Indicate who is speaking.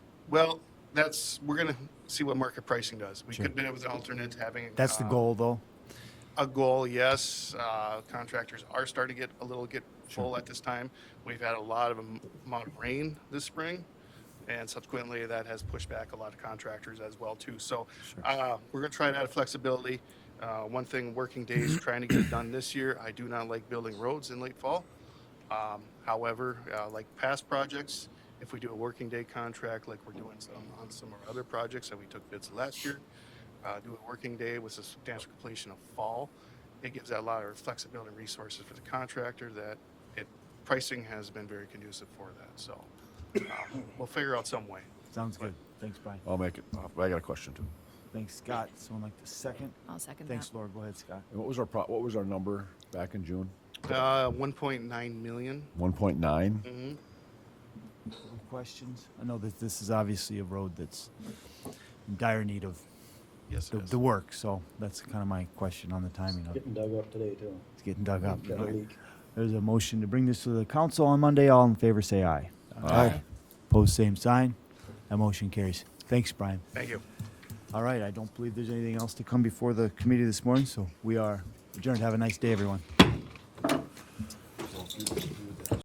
Speaker 1: Well, that's, we're going to see what market pricing does. We
Speaker 2: Sure.
Speaker 1: could bid it with an alternate, having.
Speaker 2: That's the
Speaker 1: uh,
Speaker 2: goal, though.
Speaker 1: A goal, yes. Uh, Contractors are starting to get a little, get full at this time. We've had a lot of am- amount of rain this spring, and subsequently, that has pushed back a lot of contractors as well, too. So uh, we're going to try and add flexibility. Uh, One thing, working days, trying to get it done this year. I do not like building roads in late fall. Um, However, uh, like past projects, if we do a working day contract, like we're doing some on some of our other projects that we took bids last year, uh, do a working day with a substantial completion of fall, it gives that a lot of flexibility and resources for the contractor that it, pricing has been very conducive for that, so. uh, We'll figure out some way.
Speaker 2: Sounds good. Thanks, Brian.
Speaker 3: I'll make it. I got a question too.
Speaker 2: Thanks, Scott. Someone like the second.
Speaker 4: I'll second
Speaker 2: Thanks,
Speaker 4: that.
Speaker 2: Laura. Go ahead, Scott.
Speaker 3: And what was our pro- what was our number back in June?
Speaker 1: Uh, one point nine million.
Speaker 3: One point nine.
Speaker 1: Mhm.
Speaker 2: Any questions? I know that this is obviously a road that's in dire need of
Speaker 1: Yes,
Speaker 2: the,
Speaker 1: it is.
Speaker 2: the work, so that's kind of my question on the timing of it.
Speaker 5: Getting dug up today too.
Speaker 2: It's getting dug up.
Speaker 5: Got a leak.
Speaker 2: There's a motion to bring this to the council on Monday. All in favor, say aye.
Speaker 3: Aye.
Speaker 2: Pose same sign. That motion carries. Thanks, Brian.
Speaker 1: Thank you.
Speaker 2: All right, I don't believe there's anything else to come before the committee this morning, so we are adjourned. Have a nice day, everyone.